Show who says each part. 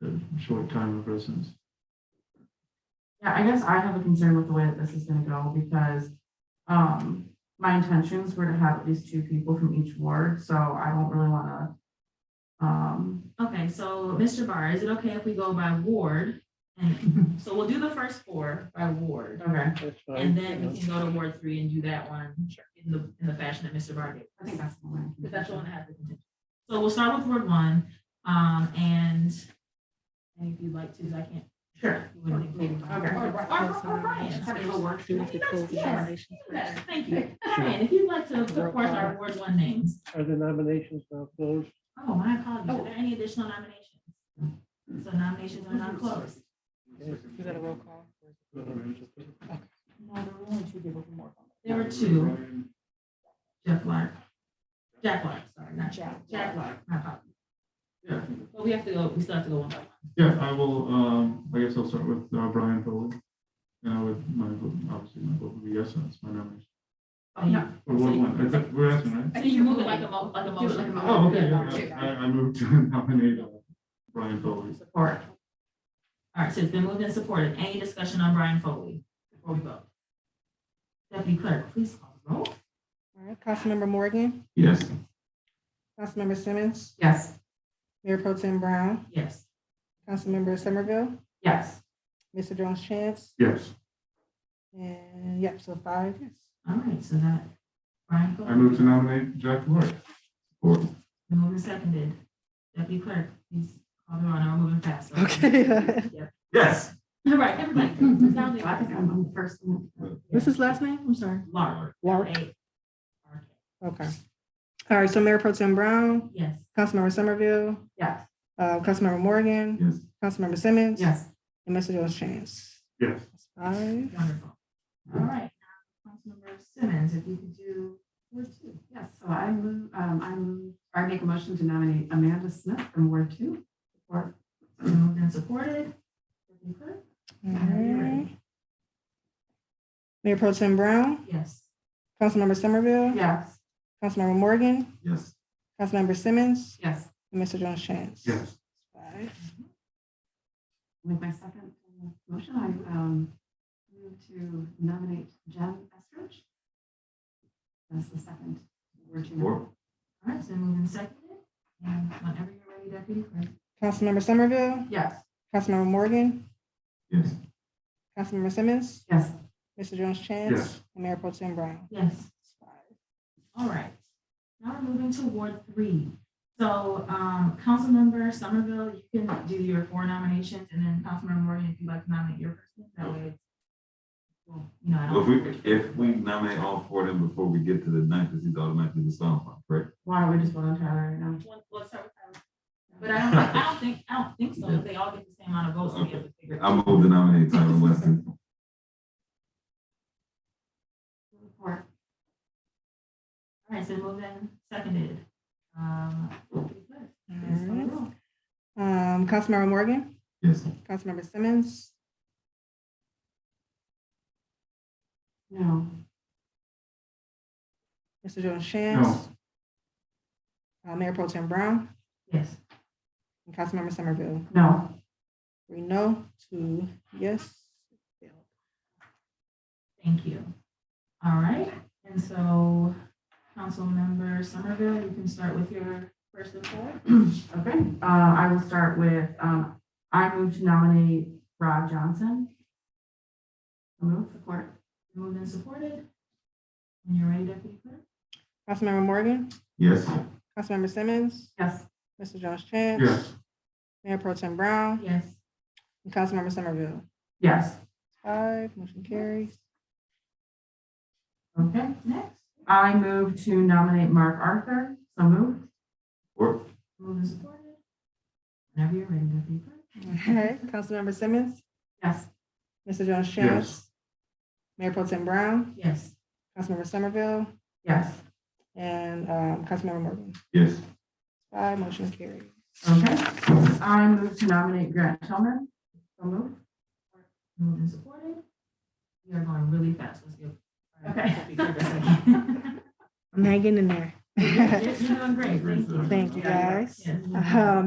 Speaker 1: the short term of residence.
Speaker 2: Yeah, I guess I have a concern with the way that this is gonna go because um my intentions were to have at least two people from each ward, so I don't really wanna um
Speaker 3: Okay, so Mr. Barr, is it okay if we go by ward? And so we'll do the first four by ward,
Speaker 2: okay,
Speaker 4: That's
Speaker 3: and
Speaker 4: fine.
Speaker 3: then we can go to Ward Three and do that one in the, in the fashion that Mr. Barr did.
Speaker 2: I think that's the one.
Speaker 3: Because that's the one that has the contention. So we'll start with Ward One, um, and and if you'd like to, I can't.
Speaker 2: Sure.
Speaker 3: You wouldn't think-
Speaker 2: Okay.
Speaker 3: Or, or, or Brian.
Speaker 2: Have it all work
Speaker 3: You
Speaker 2: through.
Speaker 3: have to close the nominations Yes, Thank you. Brian, if you'd like to, of course, our Ward One names.
Speaker 4: Are the nominations now closed?
Speaker 3: Oh, my apologies. Are there any additional nominations? So nominations are not closed.
Speaker 5: Is that a roll call?
Speaker 2: No, there were only two people from Ward one.
Speaker 3: There were two, Jeff Lark. Jack Lark, sorry, not Jack. Jack Lark, my apologies.
Speaker 1: Yeah,
Speaker 3: But we have to go, we still have to go one by one.
Speaker 1: yeah, I will, um, I guess I'll start with uh, Brian Foley. And I would, my, vote- obviously, my vote would be yes, that's my nomination.
Speaker 3: Oh, yeah.
Speaker 1: Or one, one, I think we're asking, right?
Speaker 3: So you move it like a mo, like a motion.
Speaker 2: like a motion.
Speaker 1: Oh, okay, yeah, yeah, I, I moved to nominate uh, Brian Foley.
Speaker 3: Support. All right, so it's been moved and supported. Any discussion on Brian Foley before we vote? Deputy Clerk, please call the roll.
Speaker 5: All right, Councilmember Morgan,
Speaker 1: Yes.
Speaker 5: Councilmember Simmons,
Speaker 2: Yes,
Speaker 5: Mayor Pro Tem Brown,
Speaker 3: Yes.
Speaker 5: Councilmember Somerville,
Speaker 2: yes.
Speaker 5: Mr. Jones Chance,
Speaker 1: Yes,
Speaker 5: and yep, so five, yes.
Speaker 3: All right, so that, Brian Foley.
Speaker 1: I moved to nominate Jack Lord. Or,
Speaker 3: Been moved and seconded. Deputy Clerk, please call the roll. Now we're moving fast. so-
Speaker 5: Okay.
Speaker 3: Yep.
Speaker 1: yes.
Speaker 3: All right, everybody.
Speaker 2: Well, I think I'm on the first one.
Speaker 5: What's his last name? I'm sorry.
Speaker 3: Lark.
Speaker 5: Lark.
Speaker 3: L-A-R-K.
Speaker 5: Okay. All right, so Mayor Pro Tem Brown,
Speaker 3: Yes.
Speaker 5: Councilmember Somerville,
Speaker 2: Yes,
Speaker 5: uh, Councilmember Morgan,
Speaker 1: Yes,
Speaker 5: Councilmember Simmons.
Speaker 2: yes.
Speaker 5: And Mr. Jones Chance.
Speaker 1: yes.
Speaker 5: That's Five.
Speaker 3: Wonderful. All right. now, Councilmember Simmons, if you could do
Speaker 2: Ward two, yes. So I move, um, I move, or I make a motion to nominate Amanda Smith from Ward two. Or,
Speaker 3: moved and supported. Deputy Clerk?
Speaker 5: All right. Mayor Pro Tem Brown,
Speaker 3: Yes.
Speaker 5: Councilmember Somerville,
Speaker 2: yes,
Speaker 5: Councilmember Morgan,
Speaker 1: Yes.
Speaker 5: Councilmember Simmons,
Speaker 2: yes.
Speaker 5: and Mr. Jones Chance.
Speaker 1: Yes.
Speaker 5: Five.
Speaker 2: With my second uh, motion, I um, move to nominate Jen Estridge. That's the second. word to nominate.
Speaker 1: Or,
Speaker 3: All right, so moved and seconded. And whenever you're ready, Deputy Clerk.
Speaker 5: Councilmember Somerville,
Speaker 2: Yes,
Speaker 5: Councilmember Morgan,
Speaker 1: yes,
Speaker 5: Councilmember Simmons,
Speaker 2: yes.
Speaker 5: Mr. Jones
Speaker 1: Yes.
Speaker 5: Chance, and Mayor Pro Tem Brown.
Speaker 3: Yes. All right. Now we're moving to Ward Three. So, um, Councilmember Somerville, you can do your four nominations and then Councilmember Morgan, if you'd like to nominate your person, that way it's. well, You know, I
Speaker 6: Well, If
Speaker 3: don't.
Speaker 6: we, if we nominate all four of them before we get to the ninth, because he's automatically disqualified, correct?
Speaker 2: Why don't we just vote on Tyler right now?
Speaker 3: One- let's start with Tyler. But I don't, I don't think, I don't think so. If They all get the same amount of votes. we have to figure it
Speaker 6: I
Speaker 3: out.
Speaker 6: move to nominate Tyler Weston.
Speaker 2: Or,
Speaker 3: All right, so moved and seconded. Um, please call the
Speaker 5: Alright.
Speaker 3: roll.
Speaker 5: Um, Councilmember Morgan,
Speaker 6: Yes,
Speaker 5: Councilmember Simmons,
Speaker 2: No,
Speaker 5: Mr. Jones Chance, uh, Mayor Pro Tem Brown,
Speaker 3: Yes.
Speaker 5: and Councilmember Somerville.
Speaker 2: no.
Speaker 5: Three no, two yes.
Speaker 3: Thank you. All right, and so Councilmember Somerville, you can start with your first of four.
Speaker 2: Okay, uh, I will start with, um, I move to nominate Rob Johnson. So Move support.
Speaker 3: Moved and supported. When you're ready, Deputy Clerk.
Speaker 5: Councilmember Morgan,
Speaker 6: yes,
Speaker 5: Councilmember Simmons,
Speaker 2: Yes,
Speaker 5: Mr. Jones Chance.
Speaker 1: yes,
Speaker 5: Mayor Pro Tem Brown,
Speaker 3: Yes.
Speaker 5: and Councilmember Somerville.
Speaker 2: yes.
Speaker 5: Five, motion carries.
Speaker 2: Okay, next. I move to nominate Mark Arthur. So move.
Speaker 6: or,
Speaker 3: Moved and supported. Whenever you're ready, Deputy Clerk.
Speaker 5: All right, Councilmember Simmons,
Speaker 2: Yes,
Speaker 5: Mr. Jones
Speaker 1: yes,
Speaker 5: Chance, Mayor Pro Tem Brown,
Speaker 3: Yes.
Speaker 5: Councilmember Somerville,
Speaker 2: yes.
Speaker 5: and um, Councilmember Morgan.
Speaker 6: yes,
Speaker 5: Five, motion carries.
Speaker 2: Okay. I move to nominate Grant Tillman. So move.
Speaker 3: Moved and supported. We are going really fast. Let's go.
Speaker 2: Okay.
Speaker 5: I'm hanging in there.
Speaker 3: You're doing great. Thank you.
Speaker 5: Thank you, guys.
Speaker 3: Yes.
Speaker 5: Um,